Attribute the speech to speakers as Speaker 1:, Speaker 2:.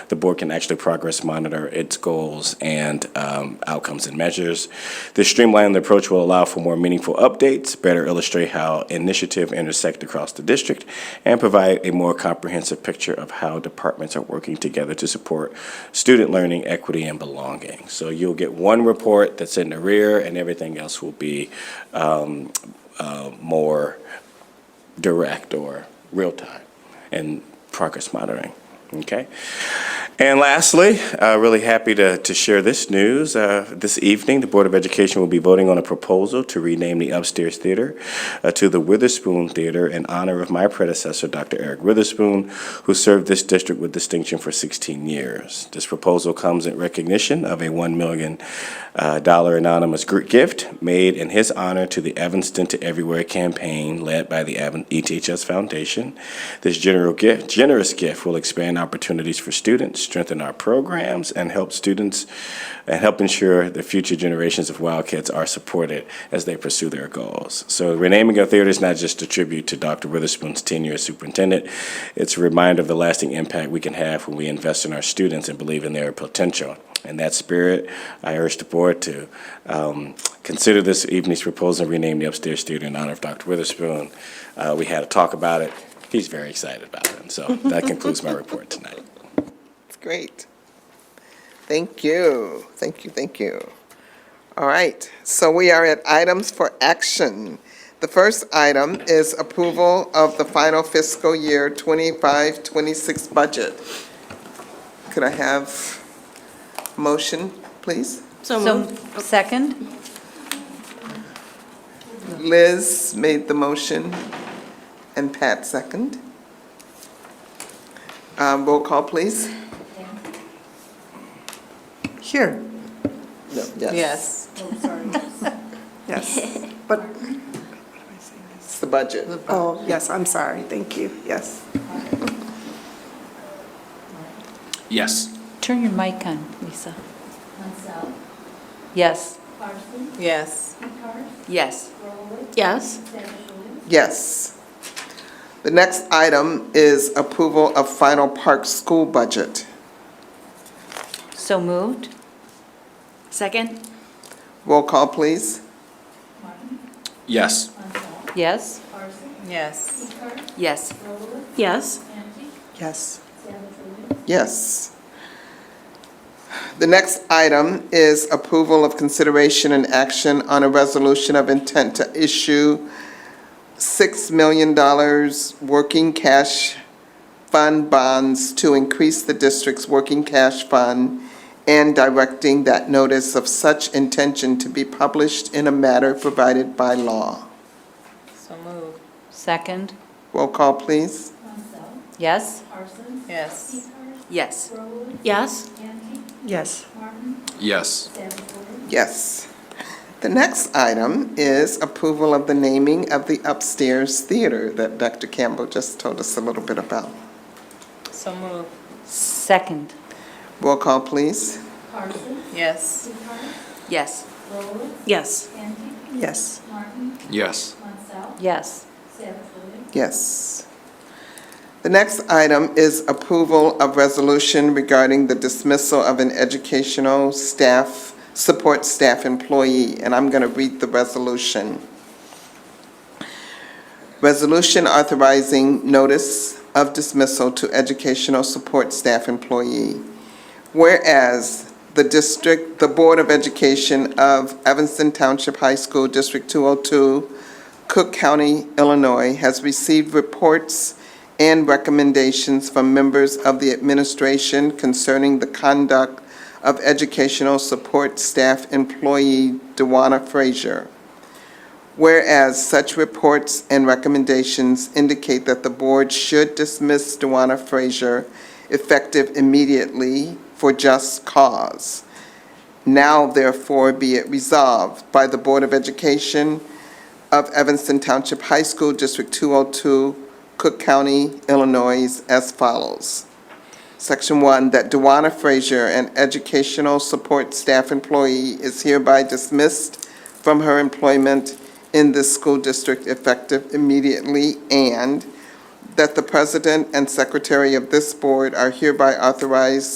Speaker 1: the board can actually progress monitor its goals and um, outcomes and measures. This streamlined approach will allow for more meaningful updates, better illustrate how initiative intersect across the district, and provide a more comprehensive picture of how departments are working together to support student learning, equity, and belonging. So you'll get one report that's in the rear, and everything else will be um, uh, more direct or real time and progress monitoring. Okay? And lastly, uh, really happy to, to share this news. Uh, this evening, the Board of Education will be voting on a proposal to rename the upstairs theater uh, to the Witherspoon Theater in honor of my predecessor, Dr. Eric Witherspoon, who served this district with distinction for 16 years. This proposal comes in recognition of a $1 million uh, dollar anonymous gr- gift made in his honor to the Evanston to Everywhere campaign led by the Evan- E ETHS Foundation. This general gift, generous gift will expand opportunities for students, strengthen our programs, and help students and help ensure the future generations of Wildcats are supported as they pursue their goals. So renaming our theater is not just a tribute to Dr. Witherspoon's tenure as superintendent. It's a reminder of the lasting impact we can have when we invest in our students and believe in their potential. In that spirit, I urge the board to um, consider this evening's proposal and rename the upstairs theater in honor of Dr. Witherspoon. Uh, We had a talk about it. He's very excited about it. And so that concludes my report tonight.
Speaker 2: It's great. Thank you, thank you, thank you. All right, so we are at items for action. The first item is approval of the final fiscal year 25-26 budget. Could I have motion, please?
Speaker 3: So
Speaker 4: So,
Speaker 3: moved.
Speaker 4: second?
Speaker 2: Liz made the motion, and Pat second. Um, Roll call, please.
Speaker 5: Here,
Speaker 3: Yes.
Speaker 5: yes. But,
Speaker 2: It's the budget.
Speaker 5: oh, yes, I'm sorry, thank you, yes.
Speaker 1: Yes.
Speaker 4: Turn your mic on, Lisa. Yes.
Speaker 6: Carson,
Speaker 3: Yes.
Speaker 6: Eckhart,
Speaker 4: Yes.
Speaker 6: Rolowitz,
Speaker 3: Yes.
Speaker 6: Dennis,
Speaker 2: Yes. The next item is approval of final park school budget.
Speaker 4: So moved? Second?
Speaker 2: Roll call, please.
Speaker 6: Martin,
Speaker 1: Yes.
Speaker 6: Montal,
Speaker 4: Yes?
Speaker 6: Carson,
Speaker 3: Yes.
Speaker 6: Eckhart,
Speaker 4: Yes.
Speaker 6: Rolowitz,
Speaker 3: Yes.
Speaker 6: Ante,
Speaker 5: Yes.
Speaker 6: Dennis,
Speaker 2: Yes. The next item is approval of consideration and action on a resolution of intent to issue $6 million working cash fund bonds to increase the district's working cash fund and directing that notice of such intention to be published in a matter provided by law.
Speaker 3: So moved.
Speaker 4: Second?
Speaker 2: Roll call, please.
Speaker 6: Montal,
Speaker 4: Yes?
Speaker 6: Carson,
Speaker 3: Yes.
Speaker 6: Eckhart,
Speaker 4: Yes.
Speaker 6: Rolowitz,
Speaker 3: Yes.
Speaker 6: Ante,
Speaker 5: Yes.
Speaker 6: Martin,
Speaker 1: Yes.
Speaker 6: Dennis,
Speaker 2: Yes. The next item is approval of the naming of the upstairs theater that Dr. Campbell just told us a little bit about.
Speaker 3: So moved.
Speaker 4: Second?
Speaker 2: Roll call, please.
Speaker 6: Carson,
Speaker 3: Yes.
Speaker 6: Eckhart,
Speaker 4: Yes.
Speaker 6: Rolowitz,
Speaker 3: Yes.
Speaker 6: Ante,
Speaker 5: Yes.
Speaker 6: Martin,
Speaker 1: Yes.
Speaker 6: Montal,
Speaker 4: Yes.
Speaker 6: Dennis,
Speaker 2: Yes. The next item is approval of resolution regarding the dismissal of an educational staff, support staff employee, and I'm going to read the resolution. Resolution authorizing notice of dismissal to educational support staff employee. Whereas the district, the Board of Education of Evanston Township High School, District 202, Cook County, Illinois, has received reports and recommendations from members of the administration concerning the conduct of educational support staff employee Dewana Frazier. Whereas such reports and recommendations indicate that the board should dismiss Dewana Frazier effective immediately for just cause. Now therefore be it resolved by the Board of Education of Evanston Township High School, District 202, Cook County, Illinois, as follows. Section 1, that Dewana Frazier, an educational support staff employee, is hereby dismissed from her employment in this school district effective immediately, and that the president and secretary of this board are hereby authorized